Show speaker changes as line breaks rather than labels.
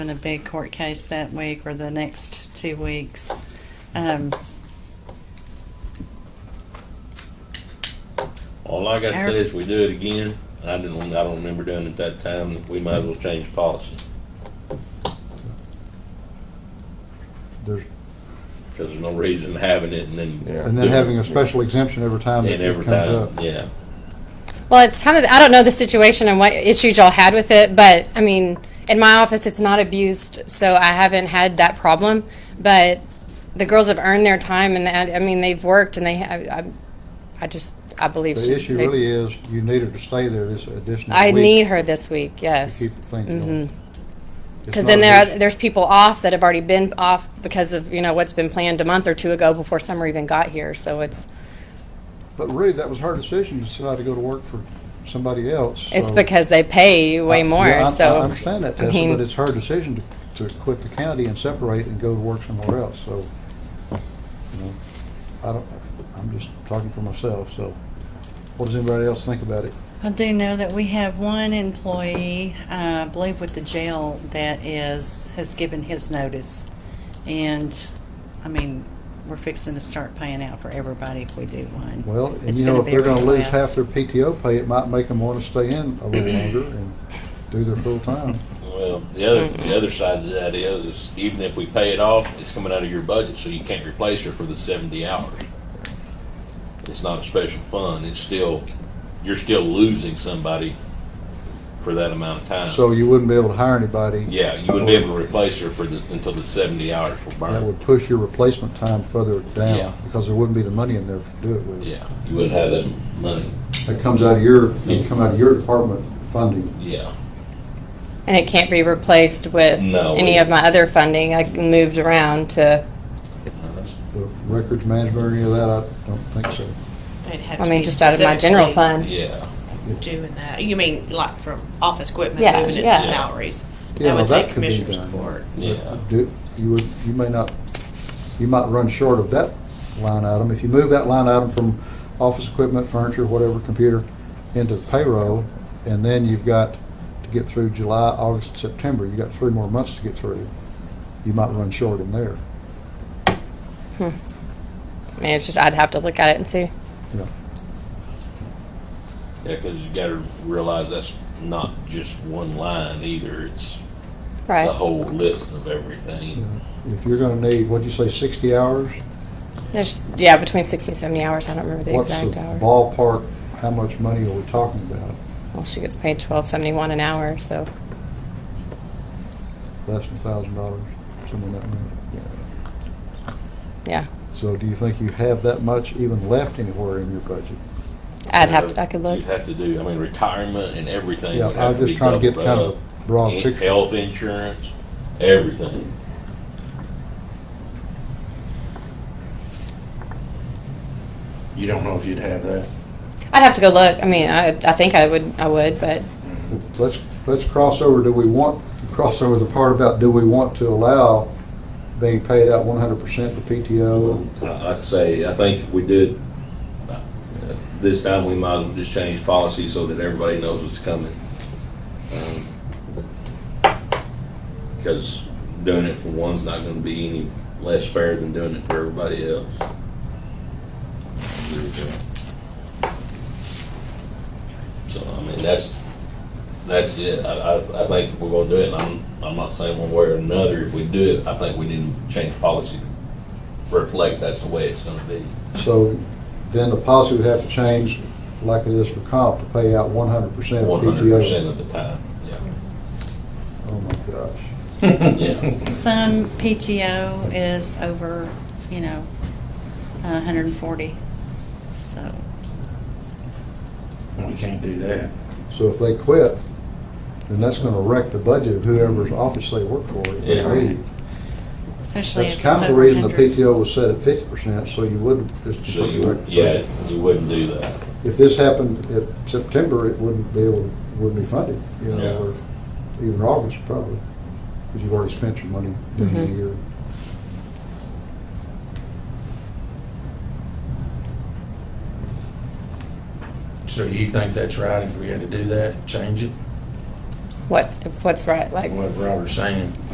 in a big court case that week or the next two weeks. Um,
All I gotta say is we do it again, I didn't, I don't remember doing it that time, we might as well change policy.
There's,
Cause there's no reason having it and then.
and then having a special exemption every time that
And
it
every
comes up.
time, yeah.
Well, it's time of, I don't know the situation and what issues y'all had with it, but I mean, in my office, it's not abused, so I haven't had that problem. But the girls have earned their time and I, I mean, they've worked and they have, I, I just, I believe.
The
she-
issue
they-
really is, you need her to stay there this additional week.
I need her this week,
To
yes.
keep the thing going. It's
Because
not
then there,
just-
are- there's people off that have already been off because of, you know, what's been planned a month or two ago before summer even got here, so it's,
But really, that was her decision to decide to go to work for somebody else.
it's
so-
because they pay you way
I- yeah, I-
more,
I
so.
understand that,
I
Tessa,
mean-
but it's her decision to, to quit the county and separate and go to work somewhere else, so, you know, I don't, I'm just talking for myself, so. What does anybody else think about it?
I do know that we have one employee, uh, I believe with the jail, that is, has given his notice. And, I mean, we're fixing to start paying out for everybody if we do one.
Well, and
It's
you know, if
be
they're gonna
really
lose half
less.
their PTO pay, it might make them wanna stay in a little longer and do their full time.
Well, the other, the other side of that is, is even if we pay it off, it's coming out of your budget, so you can't replace her for the seventy hours. It's not a special fund, it's still, you're still losing somebody for that amount of time.
So you wouldn't be able to hire anybody,
Yeah, you wouldn't be able to replace her for the, until the seventy hours were
that
burned.
would push your replacement time further
Yeah.
down, because there wouldn't be the money in there to do it with.
Yeah, you wouldn't have that money,
That comes out of your, it'd come out of your department funding.
yeah.
And it can't be replaced with
No.
any of my other funding. I moved around to,
the records management or any of that, I don't think so.
I mean, just out of my general fund.
Yeah,
Doing that, you mean like from office equipment,
Yeah,
moving it to
yeah.
salaries?
Yeah,
That
well,
would
that
take
could be
commissioners
done.
court.
yeah,
Do, you would, you may not, you might run short of that line item. If you move that line item from office equipment, furniture, whatever, computer, into payroll, and then you've got to get through July, August, and September, you got three more months to get through. You might run short in there.
I mean, it's just, I'd have to look at it and see.
yeah, cause you gotta realize that's not just one line either, it's the
Right.
whole list of everything.
If you're gonna need, what'd you say, sixty hours?
There's, yeah, between sixty and seventy hours. I don't remember the
What's
exact hour.
Ballpark, how much money are we talking about?
Well, she gets paid twelve seventy-one an hour, so.
Less than a thousand dollars, something like that. Yeah.
Yeah.
So do you think you have that much even left anywhere in your budget?
I'd have, to I could look.
You'd have to do, I mean, retirement and everything
Yeah,
would have
I'm
to be
just trying to get
doubled
kind of
up.
a broad
In-
picture.
Health insurance, everything.
You don't know if you'd have that.
I'd have to go look. I mean, I, I think I would, I would, but
Let's, let's cross over, do we want, cross over the part about, do we want to allow being paid out one hundred percent to PTO?
uh, Like I say, I think if we did, uh, this time we might as well just change policy so that everybody knows what's coming. Because doing it for one's not gonna be any less fair than doing it for everybody else. So, I mean, that's, that's it. I, I, I think if we're gonna do it, and I'm, I'm not saying one way or another, if we do it, I think we need to change policy to reflect that's the way it's gonna be.
So then the policy would have to change like it is for comp to pay out one hundred percent of
One hundred percent
PTO.
of the time,
Oh my gosh.
yeah. Yeah,
Some PTO is over, you know, hundred and forty, so.
We can't do that.
So if they quit, then that's gonna wreck the budget of whoever's office they work for. if they
Yeah.
leave.
Especially
That's
if it's
kind of the
over
reason the
100.
PTO was set at fifty percent, so you wouldn't just.
so you, yeah, you wouldn't do that.
if this happened at September, it wouldn't be able, wouldn't be funded, you
Yeah.
know, or even August probably, because you've already spent your money during the year.
So you think that's right if we had to do that, change it?
what, what's right? Like,
What Robert's saying,